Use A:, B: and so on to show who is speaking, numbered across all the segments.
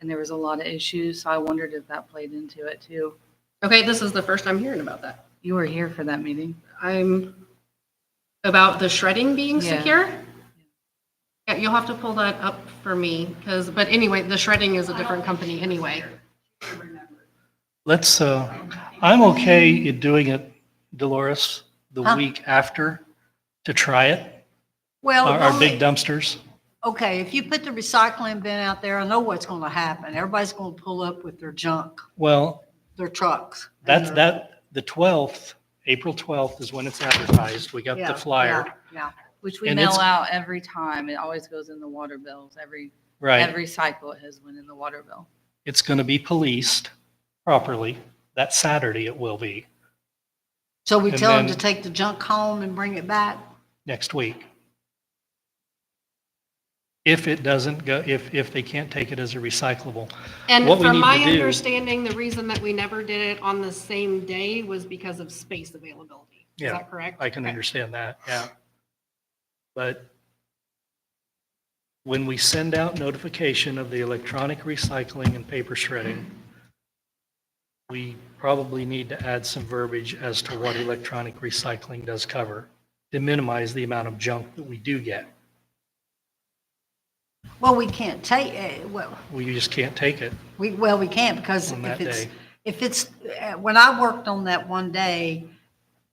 A: and there was a lot of issues. So I wondered if that played into it too.
B: Okay, this is the first I'm hearing about that.
A: You were here for that meeting.
B: I'm about the shredding being
A: Yeah.
B: secure. Yeah, you'll have to pull that up for me because, but anyway, the shredding is a different company anyway.
C: Let's, uh, I'm okay in doing it, Dolores, the
D: Huh?
C: week after to try it,
D: Well,
C: our, our
D: only-
C: big dumpsters.
D: okay, if you put the recycling bin out there, I know what's going to happen. Everybody's going to pull up with their junk,
C: Well,
D: their trucks. and
C: that's,
D: their-
C: that, the 12th, April 12th is when it's advertised. We got
D: Yeah,
C: the flyer,
D: Yeah,
A: Which we
C: And
A: mail
C: it's-
A: out every time. It always goes in the water bills. Every
C: right?
A: every cycle it has went in the water bill.
C: It's going to be policed properly. That Saturday it will be,
D: so we
C: And
D: tell them to
C: then-
D: take the junk home and bring it back.
C: next week. If it doesn't go, if, if they can't take it as a recyclable.
B: And
C: What we
B: from
C: need
B: my
C: to do-
B: understanding, the reason that we never did it on the same day was because of space availability. Is
C: Yeah,
B: that correct?
C: I can
B: Okay.
C: understand that, yeah. But when we send out notification of the electronic recycling and paper shredding, we probably need to add some verbiage as to what electronic recycling does cover to minimize the amount of junk that we do get.
D: Well, we can't take, eh, well,
C: We just can't take it.
D: we, well, we can't because
C: On
D: if
C: that
D: it's,
C: day.
D: if it's, eh, when I worked on that one day,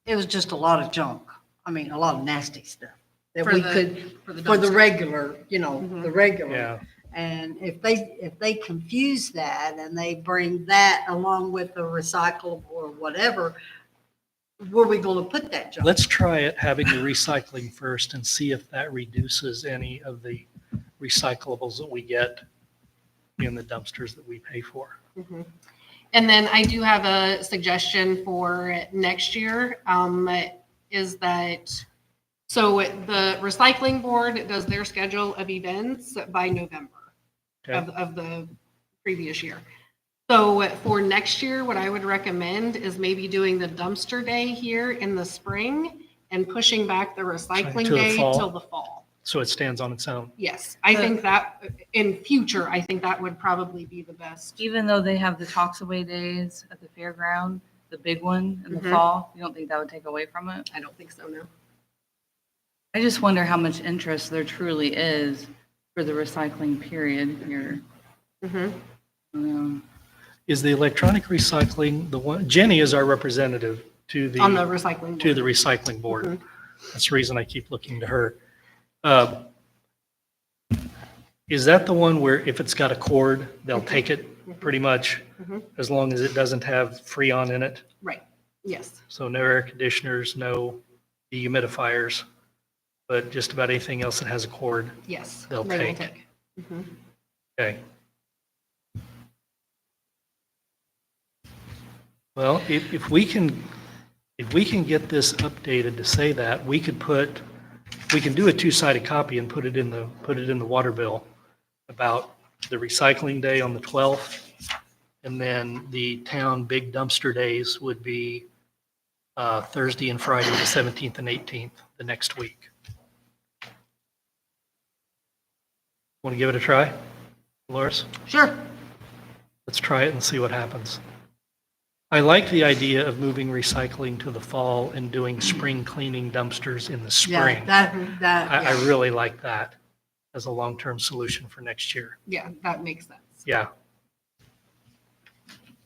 D: it was just a lot of junk. I mean, a lot of nasty stuff that
B: For
D: we
B: the-
D: could,
B: for the
D: for
B: dumpster.
D: the
B: Mm-hmm.
D: regular, you know, the regular.
C: Yeah,
D: And if they, if they confuse that and they bring that along with the recyclable or whatever, where we going to put that junk?
C: let's try it, having the recycling first and see if that reduces any of the recyclables that we get in the dumpsters that we pay for.
B: And then I do have a suggestion for next year, um, is that, so the recycling board does their schedule of events by November of, of the previous year. So for next year, what I would recommend is maybe doing the dumpster day here in the spring and pushing back the recycling
C: to the
B: day
C: fall.
B: till the fall.
C: so it stands on its own.
B: Yes, I
A: The-
B: think that in future, I think that would probably be the best.
A: Even though they have the talks away days at the fairground, the big one in the
B: Mhm.
A: fall, you don't think that would take away from it?
B: I don't think so, no.
A: I just wonder how much interest there truly is for the recycling period here.
D: Mm-hmm.
A: Um,
C: Is the electronic recycling the one, Jenny is our representative to
B: On the Mm-hmm.
C: the,
B: recycling.
C: to
B: board.
C: the recycling board. That's the reason I keep looking to her. Uh, Is that the one where if it's got a cord, they'll
B: Mm-hmm.
C: take it pretty much
B: Mhm.
C: as long as it doesn't have freon in it?
B: Right, yes.
C: So no air conditioners, no dehumidifiers, but just about anything else that has a cord.
B: Yes.
C: They'll
B: they will
C: take. Okay. Well, if, if we can, if we can get this updated to say that, we could put, we can do a two-sided copy and put it in the, put it in the water bill about the recycling day on the 12th. And then the town big dumpster days would be uh, Thursday and Friday, the 17th and 18th, the next week. Want to give it a try, Dolores?
D: Sure.
C: Let's try it and see what happens. I like the idea of moving recycling to the fall and doing spring cleaning dumpsters in the
D: Yeah,
C: spring.
D: that, that.
C: I, I
D: yeah.
C: really like that as a long-term solution for next year.
B: Yeah, that makes sense.
C: Yeah.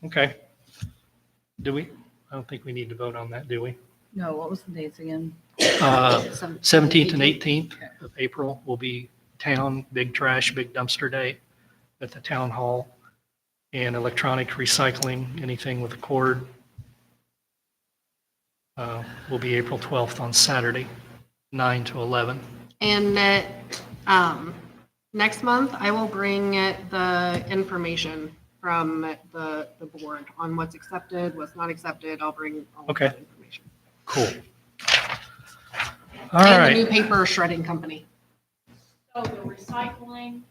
C: Okay. Do we, I don't think we need to vote on that, do we?
A: No, what was the dates again?
C: Uh,
B: Some-
C: 17th and 18th of April will be town big trash, big dumpster day at the town hall. And electronic recycling, anything with a cord, uh, will be April 12th on Saturday, 9 to 11.
B: And uh, um, next month, I will bring uh, the information from the, the board on what's accepted, what's not accepted. I'll bring all of
C: Okay.
B: that information.
C: Cool. All
B: And the new
C: right,
B: paper shredding company.
E: So the recycling,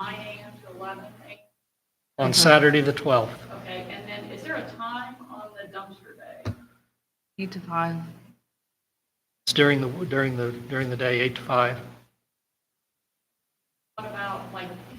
E: nine AM to eleven AM,
C: on Saturday, the 12th.
E: okay, and then is there a time on the dumpster day?
A: Eight to five.
C: It's during the, during the, during the day, 8 to 5.
E: What about like